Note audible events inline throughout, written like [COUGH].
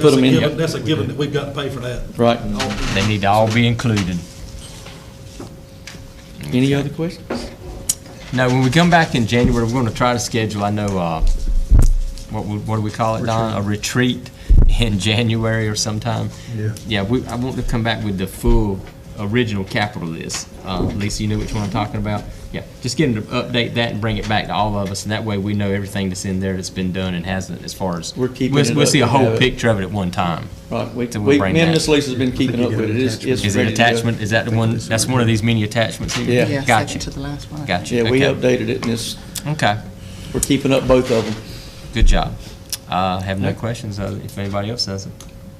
Put them in. That's a given that we've got to pay for that. Right. They need to all be included. Any other questions? Now, when we come back in January, we're going to try to schedule, I know, uh, what, we- what do we call it, Don? A retreat in [LAUGHS] January or sometime? Yeah. Yeah, we, I want to come back with the full original capital list. Uh, Lisa, you know which one I'm talking about? Yeah, just get them to update that and bring it back to all of us, and that way we know everything that's in there that's been done and hasn't as far as. We're keeping we'll- it We'll up see a to have whole it. picture of it at one time. Right, we, So we'll we, me bring and that. Miss Lisa's been keeping up with it, it's, it's Is it ready to go. attachment, is that the one, that's one of these mini attachments here? Yeah. Yeah, Gotcha. second to the last one. I think. Gotcha. Yeah, we Okay. updated it, and it's, Okay. we're keeping up both of them. Good job. Uh, I have no questions uh, if anybody else doesn't.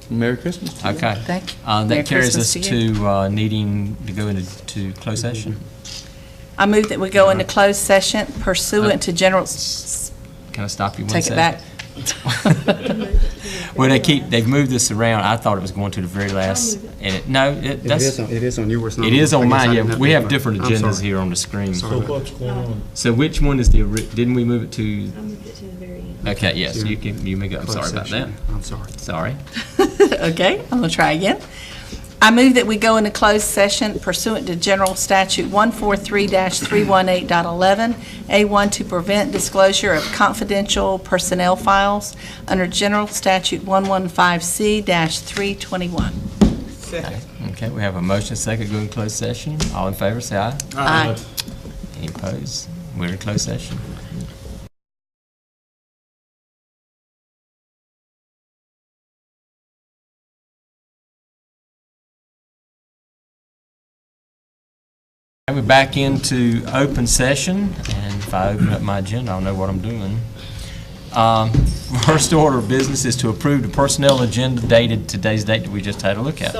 Merry Christmas to you. Okay. Thank you. Uh, Merry That carries us Christmas to you. to uh, needing to go into to closed session. I move that we go Uh-huh. into closed session pursuant to general, s- Can I stop you Uh-huh. one take it second? [LAUGHS] back. [LAUGHS] Well, they keep, they've moved this around. I thought it was going to the very last. And it, no, it, It is that's, on- it is on yours. not it is mine. on I guess I mine, did yeah. not We read have mine. different I'm agendas sorry. here on the screen. Sorry. So what's going on? So which one is the, ori- didn't we move it to, I moved it to the very end. okay, yes, you can, you may go, I'm sorry about that. I'm sorry. [LAUGHS] Sorry. Okay, I'm going to try again. I move that we go into closed session pursuant to General Statute 143-318.11, A1 to prevent disclosure of confidential personnel files under General Statute 115C-321. Okay, we have a motion second, go in closed session. All in favor, say aye. Aye. Any opposed? We're in closed session. Okay, We're back into open session, and if I open up my agenda, I'll know what I'm doing. Um, [LAUGHS] First order of business is to approve the personnel agenda dated today's date that we just had a look at.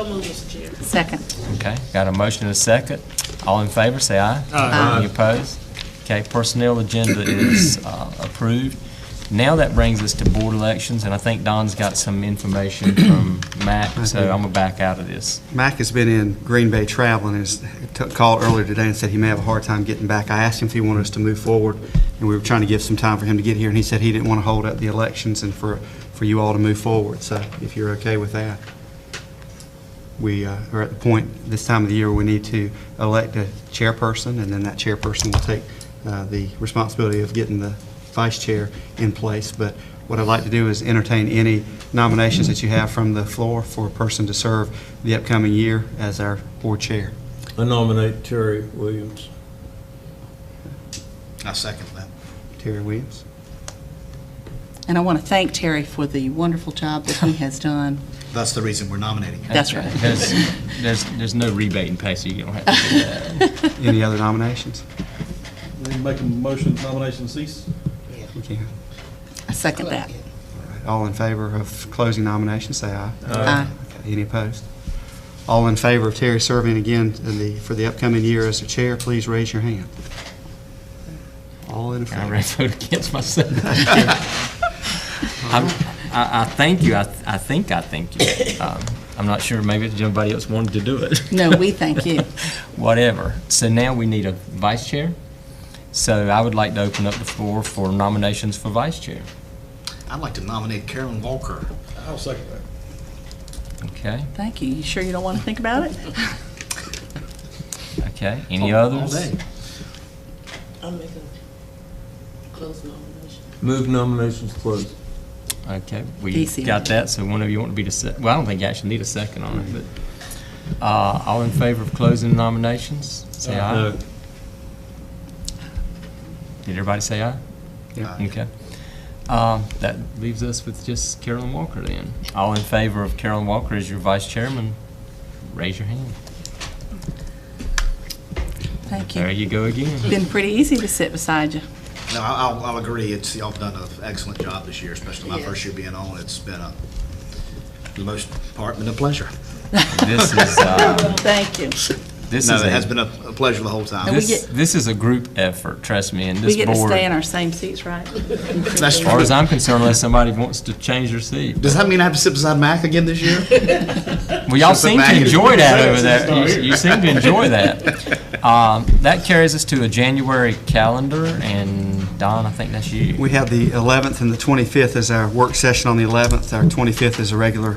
Second. Okay, got a motion and a second. All in favor, say aye. Aye. Any opposed? Okay, personnel agenda is uh, approved. Now that brings us to board elections, and I think Don's got some information from Mac, so I'm gonna back out of this. Mac has been in Green Bay traveling, and has t- called earlier today and said he may have a hard time getting back. I asked him if he wanted us to move forward, and we were trying to give some time for him to get here, and he said he didn't want to hold up the elections and for, for you all to move forward, so if you're okay with that. We uh, are at the point, this time of the year, we need to elect a chairperson, and then that chairperson will take uh, the responsibility of getting the vice chair in place. But what I'd like to do is entertain any nominations that you have from the floor for a person to serve the upcoming year as our board chair. I nominate Terry Williams. I second that. Terry Williams. And I want to thank Terry for the wonderful job that he has done. That's the reason we're nominating him. That's right. There's, there's, there's no rebate in pay, so you don't have to. Any other nominations? Then make a motion, nomination cease. We can. I second that. All in favor of closing nominations, say aye. Aye. Okay, Any opposed? All in favor of Terry serving again in the, for the upcoming year as the chair, please raise your hand. All in I favor. ran vote against myself. [LAUGHS] I'm- I, I thank you, I, I think I thank you. Um, I'm not sure, maybe somebody else wanted to do it. No, we thank you. whatever. So now we need a vice chair. So I would like to open up the floor for nominations for vice chair. I'd like to nominate Karen Walker. I'll second that. Okay, Thank you. You sure you don't want to think about it? okay. Any All- all others? day. I'm making a close nomination. Move nominations closed. Okay, we Easy. got that. So one of you want to be the sec, well, I don't think you actually need a second on it, but, uh, all in favor of closing nominations? Say aye. No. Did everybody say aye? Yeah. Okay. Um, that leaves us with just Carolyn Walker then. All in favor of Carolyn Walker as your vice chairman, raise your hand. Thank There you you. go again. [LAUGHS] Been pretty easy to sit beside you. No, I- I'll, I'll agree, it's, y'all have done an excellent job this year, especially my first year being on. It's been a, for the most part, been a pleasure. This is, uh, Thank you. This No, is it a- has been a a pleasure the whole time. we This, this is a group effort, trust me, and We this get to board, stay in as our same seats, right? That's far true. as I'm concerned, unless somebody wants to change their seat. Does that mean I have to sit beside Mac again this year? [LAUGHS] Well, y'all Just the seem to back. enjoy that over It's there. not You- here. You [LAUGHS] seem to enjoy that. Um, That carries us to a January calendar, and Don, I think that's you. We have the 11th and the 25th as our work session on the 11th. Our 25th is a regular